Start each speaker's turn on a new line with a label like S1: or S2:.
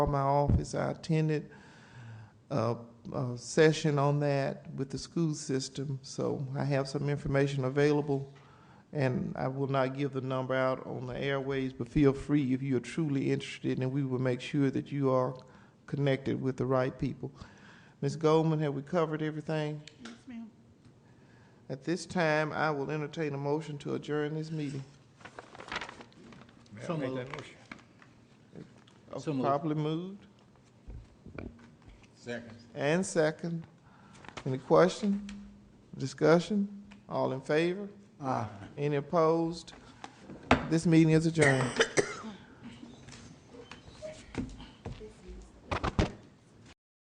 S1: called my office. I attended a, a session on that with the school system, so I have some information available. And I will not give the number out on the airways, but feel free if you are truly interested, and we will make sure that you are connected with the right people. Ms. Goldman, have we covered everything?
S2: Yes, ma'am.
S1: At this time, I will entertain a motion to adjourn this meeting.
S3: May
S4: So
S3: I make
S4: moved.
S3: that motion?
S4: So moved.
S1: Properly moved
S3: Second.
S1: and second. Any question, discussion? All in favor? Any opposed? This meeting is adjourned.